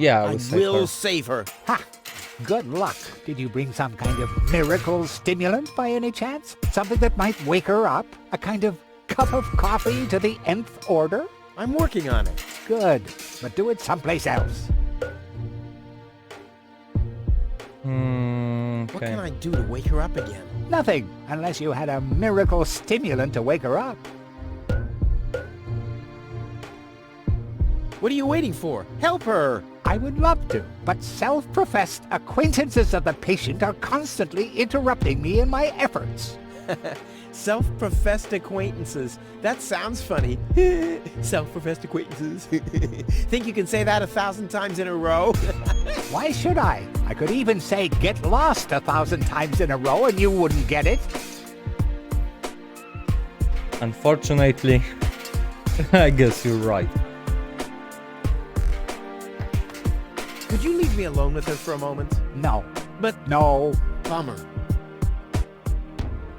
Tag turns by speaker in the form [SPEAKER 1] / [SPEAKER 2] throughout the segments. [SPEAKER 1] Yeah, I
[SPEAKER 2] I
[SPEAKER 1] would say
[SPEAKER 2] will
[SPEAKER 1] her.
[SPEAKER 2] save her.
[SPEAKER 3] Ha! Good luck. Did you bring some kind of miracle stimulant by any chance? Something that might wake her up? A kind of cup of coffee to the nth order?
[SPEAKER 2] I'm working on it.
[SPEAKER 3] Good. But do it someplace else.
[SPEAKER 1] Hmm,
[SPEAKER 2] What
[SPEAKER 1] okay.
[SPEAKER 2] can I do to wake her up again?
[SPEAKER 3] Nothing, unless you had a miracle stimulant to wake her up.
[SPEAKER 2] What are you waiting for? Help her!
[SPEAKER 3] I would love to, but self-professed acquaintances of the patient are constantly interrupting me in my efforts.
[SPEAKER 2] Self-professed acquaintances. That sounds funny. Self-professed acquaintances. Think you can say that a thousand times in a row?
[SPEAKER 3] Why should I? I could even say get lost a thousand times in a row and you wouldn't get it.
[SPEAKER 1] Unfortunately, I guess you're right.
[SPEAKER 2] Could you leave me alone with her for a moment?
[SPEAKER 3] No,
[SPEAKER 2] But
[SPEAKER 3] no.
[SPEAKER 2] bummer.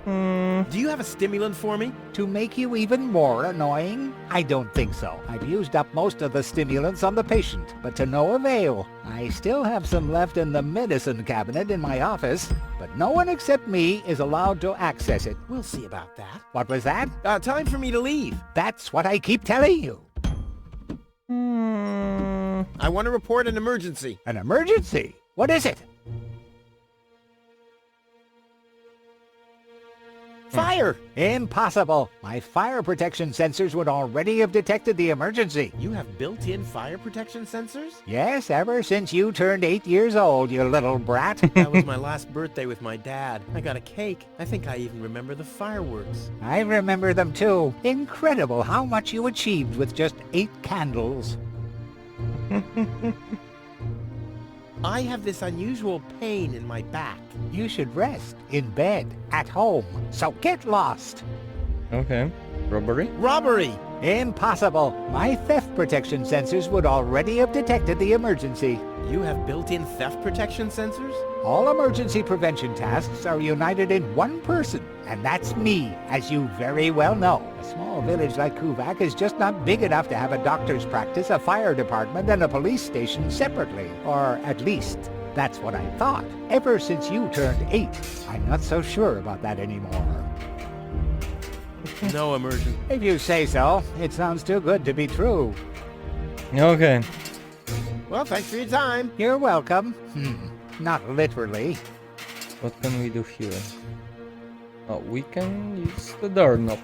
[SPEAKER 1] Hmm.
[SPEAKER 2] Do you have a stimulant for me?
[SPEAKER 3] To make you even more annoying? I don't think so. I've used up most of the stimulants on the patient, but to no avail. I still have some left in the medicine cabinet in my office, but no one except me is allowed to access it.
[SPEAKER 2] We'll see about that.
[SPEAKER 3] What was that?
[SPEAKER 2] Uh, time for me to leave.
[SPEAKER 3] That's what I keep telling you.
[SPEAKER 1] Hmm,
[SPEAKER 2] I want to report an emergency.
[SPEAKER 3] An emergency. What is it?
[SPEAKER 1] Hmm.
[SPEAKER 2] Fire!
[SPEAKER 3] Impossible. My fire protection sensors would already have detected the emergency.
[SPEAKER 2] You have built-in fire protection sensors?
[SPEAKER 3] Yes, ever since you turned eight years old, you little brat.
[SPEAKER 2] that was my last birthday with my dad. I got a cake. I think I even remember the fireworks.
[SPEAKER 3] I remember them too. Incredible how much you achieved with just eight candles.
[SPEAKER 2] I have this unusual pain in my back.
[SPEAKER 3] You should rest in bed at home. So get lost.
[SPEAKER 1] okay. Robbery?
[SPEAKER 2] Robbery!
[SPEAKER 3] Impossible. My theft protection sensors would already have detected the emergency.
[SPEAKER 2] You have built-in theft protection sensors?
[SPEAKER 3] All emergency prevention tasks are united in one person, and that's me, as you very well know. A small village like Kuvak is just not big enough to have a doctor's practice, a fire department, and a police station separately. Or at least, that's what I thought. Ever since you turned eight, I'm not so sure about that anymore.
[SPEAKER 2] No emergency.
[SPEAKER 3] If you say so, it sounds too good to be true.
[SPEAKER 1] Okay.
[SPEAKER 2] Well, thanks for your time.
[SPEAKER 3] You're welcome. Hmm, not literally.
[SPEAKER 1] What can we do here? Oh, we can use the doorknob.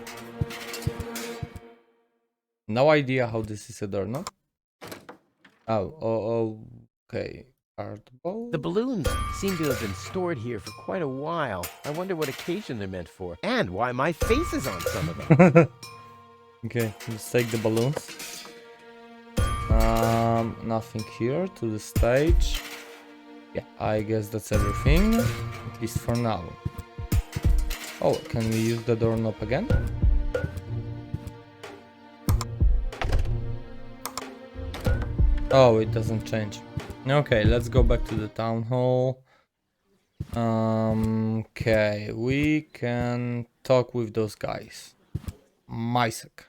[SPEAKER 1] No idea how this is a doorknob. Oh, oh, okay. Art ball.
[SPEAKER 2] The balloons seem to have been stored here for quite a while. I wonder what occasion they're meant for, and why my face is on some of them.
[SPEAKER 1] Okay, let's take the balloons. Um, nothing here to the stage. Yeah, I guess that's everything, at least for now. Oh, can we use the doorknob again? Oh, it doesn't change. Okay, let's go back to the town hall. Um, okay, we can talk with those guys. Mysek.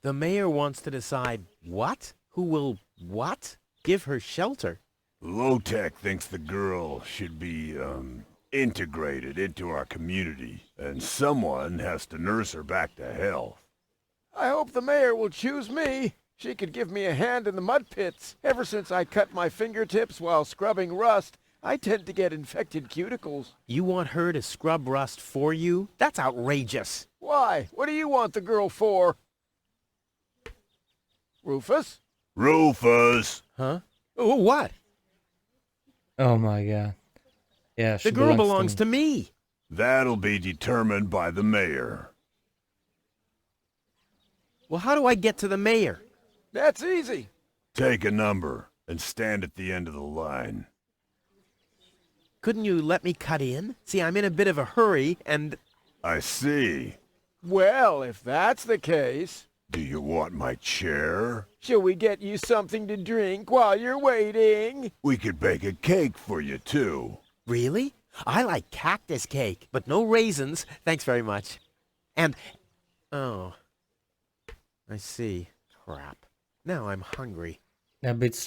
[SPEAKER 2] the mayor wants to decide what? Who will what? Give her shelter.
[SPEAKER 4] Low-Tech thinks the girl should be, um, integrated into our community, and someone has to nurse her back to health.
[SPEAKER 5] I hope the mayor will choose me. She could give me a hand in the mud pits. Ever since I cut my fingertips while scrubbing rust, I tend to get infected cuticles.
[SPEAKER 2] You want her to scrub rust for you? That's outrageous.
[SPEAKER 5] Why? What do you want the girl for? Rufus?
[SPEAKER 4] Rufus!
[SPEAKER 2] Huh? Oh, what?
[SPEAKER 1] Oh my god. Yeah, she
[SPEAKER 2] The girl belongs to me.
[SPEAKER 4] That'll be determined by the mayor.
[SPEAKER 2] Well, how do I get to the mayor?
[SPEAKER 5] That's easy.
[SPEAKER 4] Take a number and stand at the end of the line.
[SPEAKER 2] Couldn't you let me cut in? See, I'm in a bit of a hurry, and
[SPEAKER 4] I see.
[SPEAKER 5] Well, if that's the case,
[SPEAKER 4] Do you want my chair?
[SPEAKER 5] shall we get you something to drink while you're waiting?
[SPEAKER 4] We could bake a cake for you, too.
[SPEAKER 2] really? I like cactus cake, but no raisins. Thanks very much. And oh, I see. Crap. Now I'm hungry.
[SPEAKER 1] a bit